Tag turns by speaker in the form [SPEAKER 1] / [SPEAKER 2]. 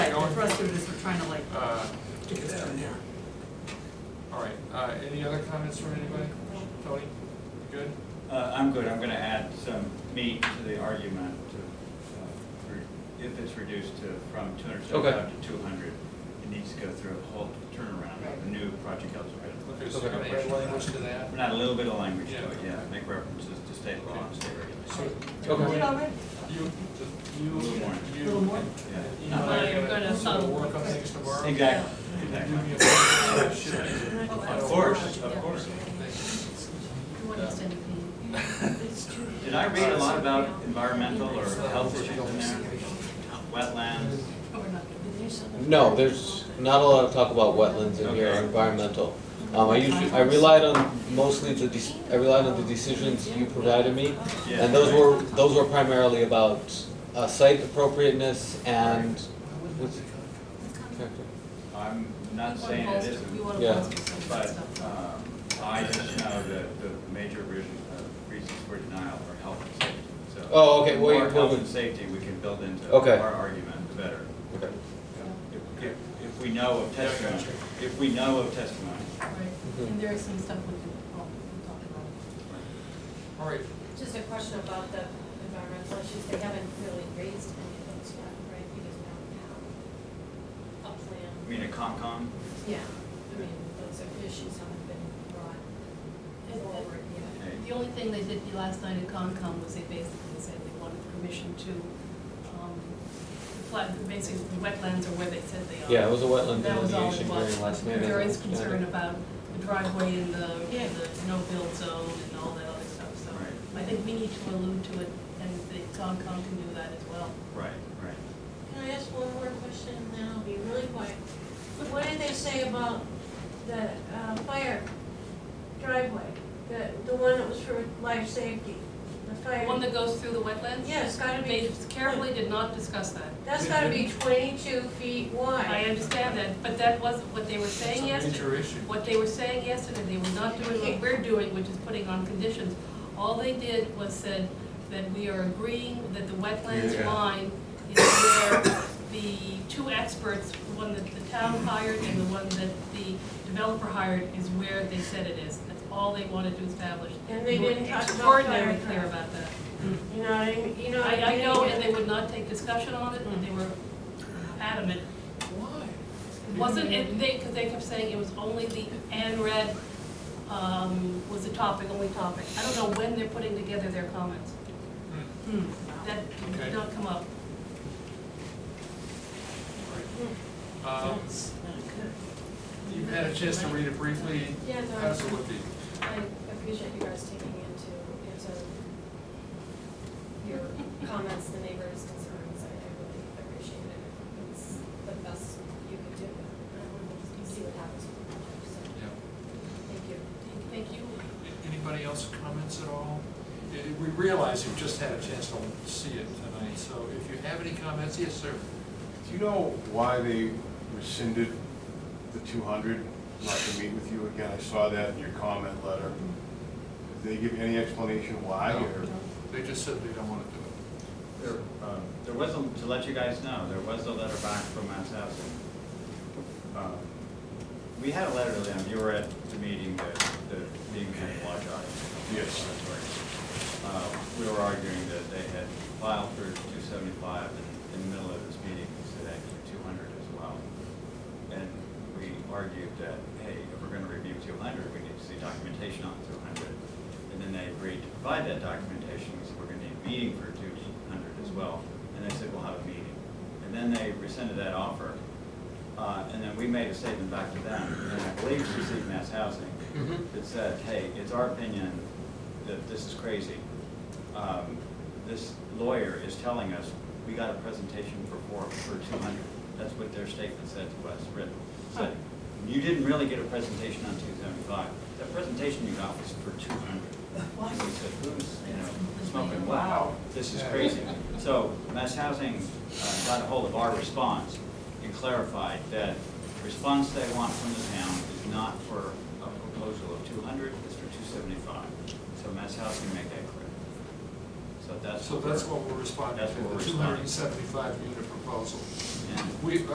[SPEAKER 1] uh, other comments from anybody? Tony, you good?
[SPEAKER 2] Uh, I'm good, I'm gonna add some meat to the argument to, uh, re- if it's reduced to, from two hundred seventy-five to two hundred, it needs to go through a whole turnaround, of a new project eligibility.
[SPEAKER 1] Okay, so we're gonna add language to that.
[SPEAKER 2] We're not a little bit of language to it,
[SPEAKER 1] Yeah.
[SPEAKER 2] yeah, make references to state law and state
[SPEAKER 1] So,
[SPEAKER 2] regulations.
[SPEAKER 3] Is it
[SPEAKER 1] you, you,
[SPEAKER 2] A
[SPEAKER 3] already?
[SPEAKER 2] little
[SPEAKER 1] you,
[SPEAKER 2] more.
[SPEAKER 1] you.
[SPEAKER 3] Little more?
[SPEAKER 1] You
[SPEAKER 2] Yeah.
[SPEAKER 1] know,
[SPEAKER 4] You're
[SPEAKER 1] I'm
[SPEAKER 4] gonna-
[SPEAKER 1] gonna, so we'll work on things tomorrow.
[SPEAKER 2] Exactly,
[SPEAKER 1] You
[SPEAKER 2] exactly.
[SPEAKER 1] give me a call, shoot me.
[SPEAKER 2] Of course, of course.
[SPEAKER 1] Thanks.
[SPEAKER 2] Did I read a lot about environmental or health issues in there? Wetlands,
[SPEAKER 5] No, there's not a lot of talk about wetlands in here, or
[SPEAKER 2] Okay.
[SPEAKER 5] environmental. Um, I usually, I relied on mostly the, dec- I relied on the decisions you provided me.
[SPEAKER 2] yeah.
[SPEAKER 5] And those were, those were primarily about, uh, site appropriateness and, what's it?
[SPEAKER 2] I'm not saying it isn't.
[SPEAKER 5] Yeah.
[SPEAKER 2] But um, I just know that the major reason- uh, reasons for denial are health and safety, so.
[SPEAKER 5] Oh, okay,
[SPEAKER 2] The
[SPEAKER 5] well,
[SPEAKER 2] more
[SPEAKER 5] you-
[SPEAKER 2] health and safety we can build into
[SPEAKER 5] Okay.
[SPEAKER 2] our argument, the better.
[SPEAKER 5] Okay.
[SPEAKER 2] If- If if we know of
[SPEAKER 1] Yeah,
[SPEAKER 2] testimony,
[SPEAKER 1] gotcha.
[SPEAKER 2] if we know of testimony.
[SPEAKER 5] Mm-hmm.
[SPEAKER 4] And there is some stuff we can, well, we can talk about.
[SPEAKER 1] All right,
[SPEAKER 3] Just a question about the environmental issues, they haven't really raised any of those yet, right? Because now we have a plan.
[SPEAKER 2] I mean, a Concom,
[SPEAKER 3] Yeah, I mean, those are issues haven't been brought forward yet.
[SPEAKER 2] okay,
[SPEAKER 4] The only thing they did last night at Concom was they basically said they wanted permission to, um, flood, basically the wetlands are where they said they are.
[SPEAKER 5] Yeah, it was a wetland
[SPEAKER 4] That was all it
[SPEAKER 5] delineation
[SPEAKER 4] was.
[SPEAKER 5] hearing last night.
[SPEAKER 4] There
[SPEAKER 5] I
[SPEAKER 4] is
[SPEAKER 5] think. Yeah.
[SPEAKER 4] concern about the driveway and the, the no-build zone and all that other stuff, so.
[SPEAKER 2] Right.
[SPEAKER 4] I think we need to allude to it, and the Concom can do that as well.
[SPEAKER 2] right, right.
[SPEAKER 6] Can I ask one more question, and then I'll be really quiet? But what did they say about the uh, fire driveway? The, the one that was for life safety, the
[SPEAKER 4] The
[SPEAKER 6] fire?
[SPEAKER 4] one that goes through the wetlands?
[SPEAKER 6] Yeah, it's gotta
[SPEAKER 4] They
[SPEAKER 6] be,
[SPEAKER 4] carefully did not discuss that.
[SPEAKER 6] that's gotta be twenty-two feet
[SPEAKER 4] I
[SPEAKER 6] wide.
[SPEAKER 4] understand that, but that wasn't what they were
[SPEAKER 1] it's a
[SPEAKER 4] saying yesterday.
[SPEAKER 1] major issue.
[SPEAKER 4] What they were saying yesterday, they were not doing what we're doing, which is putting on conditions. All they did was said that we are agreeing that the wetlands
[SPEAKER 5] Yeah.
[SPEAKER 4] line is where the two experts, the one that the town hired and the one that the developer hired, is where they said it is. That's all they wanted to establish.
[SPEAKER 6] And they
[SPEAKER 4] were
[SPEAKER 6] didn't talk about
[SPEAKER 4] Extraordinarily
[SPEAKER 6] fire
[SPEAKER 4] clear
[SPEAKER 6] truck.
[SPEAKER 4] about that.
[SPEAKER 6] You know what I mean? You know what
[SPEAKER 4] I, I
[SPEAKER 6] mean?
[SPEAKER 4] know, and they would not take discussion on it, and they were adamant
[SPEAKER 1] Why?
[SPEAKER 4] Wasn't it, they, because they kept saying it was only the Anred, um, was the topic, only topic. I don't know when they're putting together their comments.
[SPEAKER 1] Hmm,
[SPEAKER 4] That
[SPEAKER 1] Okay.
[SPEAKER 4] did not come up.
[SPEAKER 1] Um,
[SPEAKER 6] That's not good.
[SPEAKER 1] you've had a chance to read it briefly,
[SPEAKER 3] Yeah, no,
[SPEAKER 1] how's it
[SPEAKER 3] I-
[SPEAKER 1] look to you?
[SPEAKER 3] I appreciate you guys taking into, into your comments, the neighbors' concerns, I I really appreciate it. It's the best you could do, and we'll see what happens with the project, so,
[SPEAKER 1] Yeah.
[SPEAKER 3] thank you.
[SPEAKER 4] Thank you.
[SPEAKER 1] Anybody else comments at all? Eh, We realize you've just had a chance to see it tonight, so if you have any comments, yes, sir.
[SPEAKER 7] Do you know why they rescinded the two hundred, not to meet with you again? I saw that in your comment letter. Did they give any explanation why, or?
[SPEAKER 1] They just said they don't want to do it.
[SPEAKER 2] There uh, there was, a- to let you guys know, there was a letter back from Mass Housing. Um, We had a letter to them, you were at the meeting, the, the meeting had a large audience.
[SPEAKER 7] Yes.
[SPEAKER 2] Uh, We were arguing that they had filed for two seventy-five, and in the middle of this meeting, they said actually two hundred as well. And we argued that, hey, if we're gonna review two hundred, we need to see documentation on two hundred. And then they agreed to provide that documentation, so we're gonna need a meeting for two hundred as well. And they said, we'll have a meeting. And then they rescinded that offer. Uh, And then we made a statement back to them, and I believe it received mass housing, that said, hey, it's our opinion that this is crazy. Um, This lawyer is telling us, we got a presentation for four, for two hundred. That's what their statement said to us, written. Said, you didn't really get a presentation on two seventy-five. That presentation you got was for two hundred. And we said, who's, you know, smoking, wow, this is crazy. So Mass Housing uh, got a hold of our response and clarified that the response they want from the town is not for a proposal of two hundred, it's for two seventy-five. So Mass Housing made that clear. So that's.
[SPEAKER 1] So that's what we're responding
[SPEAKER 2] That's what
[SPEAKER 1] to,
[SPEAKER 2] we're
[SPEAKER 1] the two hundred and seventy-five unit proposal.
[SPEAKER 2] we're- and-
[SPEAKER 1] We,